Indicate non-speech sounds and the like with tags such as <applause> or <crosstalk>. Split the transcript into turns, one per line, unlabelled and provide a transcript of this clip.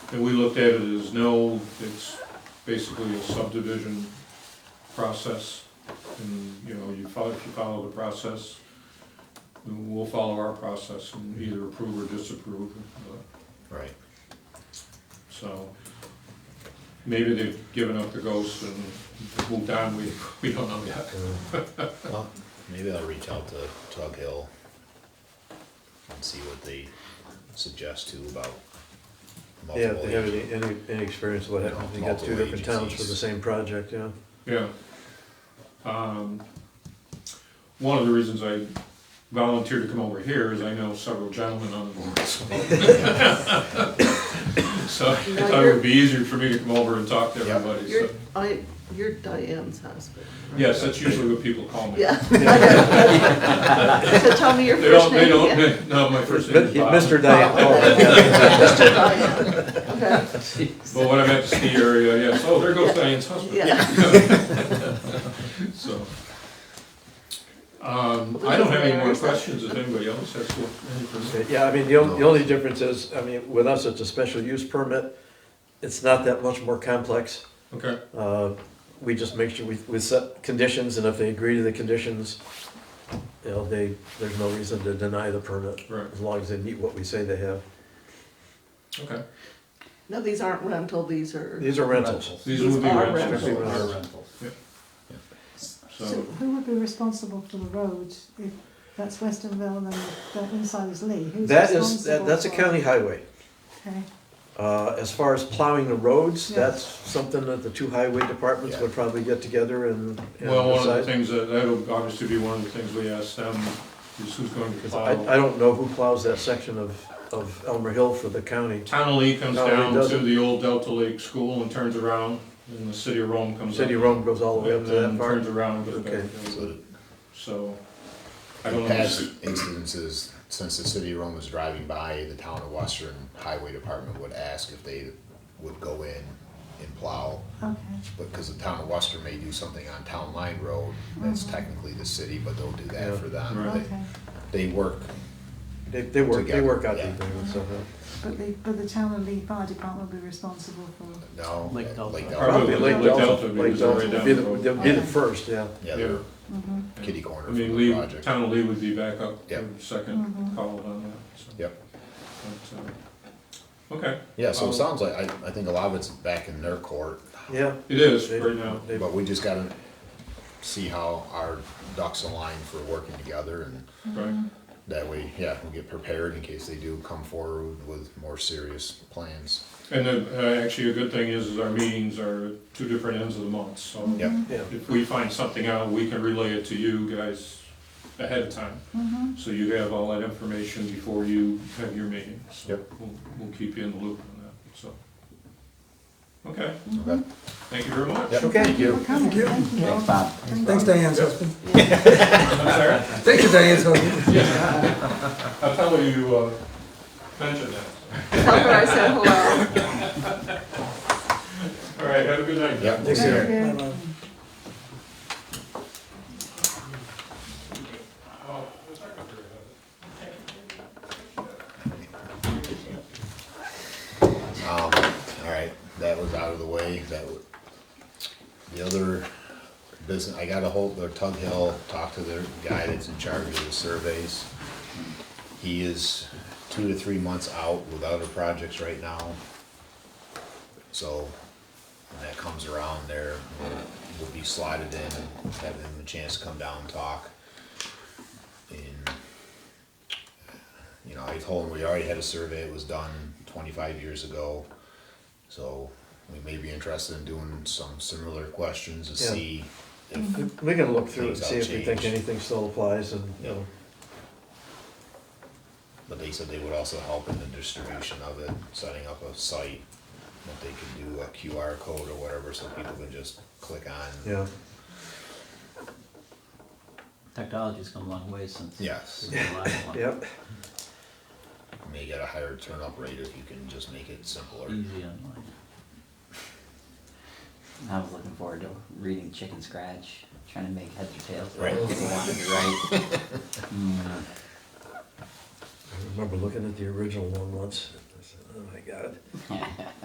And we looked at it as no, it's basically a subdivision process. And, you know, you follow, if you follow the process, then we'll follow our process and either approve or disapprove. uh,
Right.
So maybe they've given up the ghost and moved on, we, <laughs> we don't know yet.
Well, maybe I'll reach out to Tug Hill and see what they suggest too about
Yeah,
multiple.
if they have any, any, any experience of what happens, if you got two
Multiple
different towns for the
agencies.
same project, yeah.
Yeah. Um, One of the reasons I volunteered to come over here is I know several gentlemen on the board, so. So I thought it would be easier for me to come over and talk to everybody,
You're,
so.
I, you're Diane's husband. right?
Yes, that's usually what people call me.
Yeah. So tell me your
They don't,
first
they
name
don't, <laughs>
again. Oh,
they- no, my first name is Bob.
Mr. Diane,
Mr. Diane, okay,
But when I'm at the ski area, yes, oh, there goes Diane's husband.
yeah.
<laughs> So. Um, I don't have any more questions if anybody else has one. any for me.
yeah, I mean, the only, the only difference is, I mean, with us, it's a special use permit. It's not that much more complex.
Okay,
Uh, We just make sure we, we set conditions, and if they agree to the conditions, you know, they, there's no reason to deny the permit,
right,
as long as they meet what we say they have.
okay.
No, these aren't rental, these are,
These are rentals.
These would be
These are
rentals.
rentals. Are
So,
Who would be responsible for the road? If that's Westonville, then that inside is Lee. Who's
That is, that-
responsible
that's a
for-
county highway.
Okay,
Uh, As far as plowing the roads,
Yeah.
that's something that the two highway departments would probably get together and. and
well, one of the
decide.
things, that that'll obviously be one of the things we ask them, is who's going to
'Cause I,
plow.
I don't know who plows that section of, of Elmer Hill for the county.
Towneley comes
No, it
down to
doesn't.
the old Delta Lake School and turns around, and the city of Rome comes up.
City of Rome goes all the way up
And
to that
then
part.
turns around and goes
Okay.
back.
So
So, I
the
don't
past
know,
incidences, since the city of Rome was driving by, the town of Western Highway Department would ask if they would go in and plow.
okay.
But because the town of Western may do something on Town Line Road, that's technically the city, but they'll do that
Yeah.
for them.
Right.
Okay,
They they work,
They, they work, they work out
Together, yeah.
these things, so. uh,
but the, but the town and Lee Fire Department would be responsible for,
no, uh,
Lake
Lake
Delta.
Delta.
Probably Lake Delta,
Lake
because they're
Delta,
right
be
down the road.
the, they'll be the first, yeah.
yeah,
Yeah, they're
mhm,
kitty corner
I
from
mean,
the
Lee,
project.
Towneley would be back up
Yeah.
for the second
Mhm.
call on that, so.
Yep.
But, uh, Okay,
Yeah, so
Um,
it sounds like, I, I think a lot of it's back in their court,
Yeah.
it is
They-
right now,
they-
but we just gotta see how our ducks align for working together and
right,
that way, yeah, we'll get prepared in case they do come forward with more serious plans.
and then, uh, actually, a good thing is, is our meetings are at two different ends of the month, so.
Yep,
Yeah,
If we find something out, we can relay it to you guys ahead of time.
mhm.
So you have all that information before you have your meeting. So
Yep.
We'll, we'll keep you in the loop on that, so. Okay,
okay.
thank you very much.
Yep,
Okay.
Thank
Thank you
you.
for coming. Thank you.
Thanks Diane's husband.
I'm sorry?
Thank you Diane's husband.
I'll tell you, uh, mentioned that.
Tell her I said hello.
All right, have a good night.
Yep.
Thanks, Eric.
Thank you.
Um, all right, that was out of the way, that was, the other business, I got a hold, of Tug Hill, talked to the guy that's in charge of the surveys. He is two to three months out with other projects right now. So, when that comes around there, we'll be slotted in, and have him a chance to come down and talk. And you know, I told him we already had a survey, it was done twenty-five years ago. So we may be interested in doing some similar questions to
Yeah.
see if,
We can look through and
Things
see if we think
outchanged.
anything still applies and, you know,
but they said they would also help in the distribution of it, setting up a site. That they can do a QR code or whatever, so people can just click on.
yeah.
Technology's come a long way since.
Yes.
since the last one.
<laughs> Yep,
You May get a higher turn up rate if you can just make it simpler.
Mm-hmm.
Easy online.
I was looking forward to reading Chicken Scratch, trying to make heads or tails. of it.
Right.
People wanted to write.
<laughs>
Mm,
I remember looking at the original one once, I said, oh my god.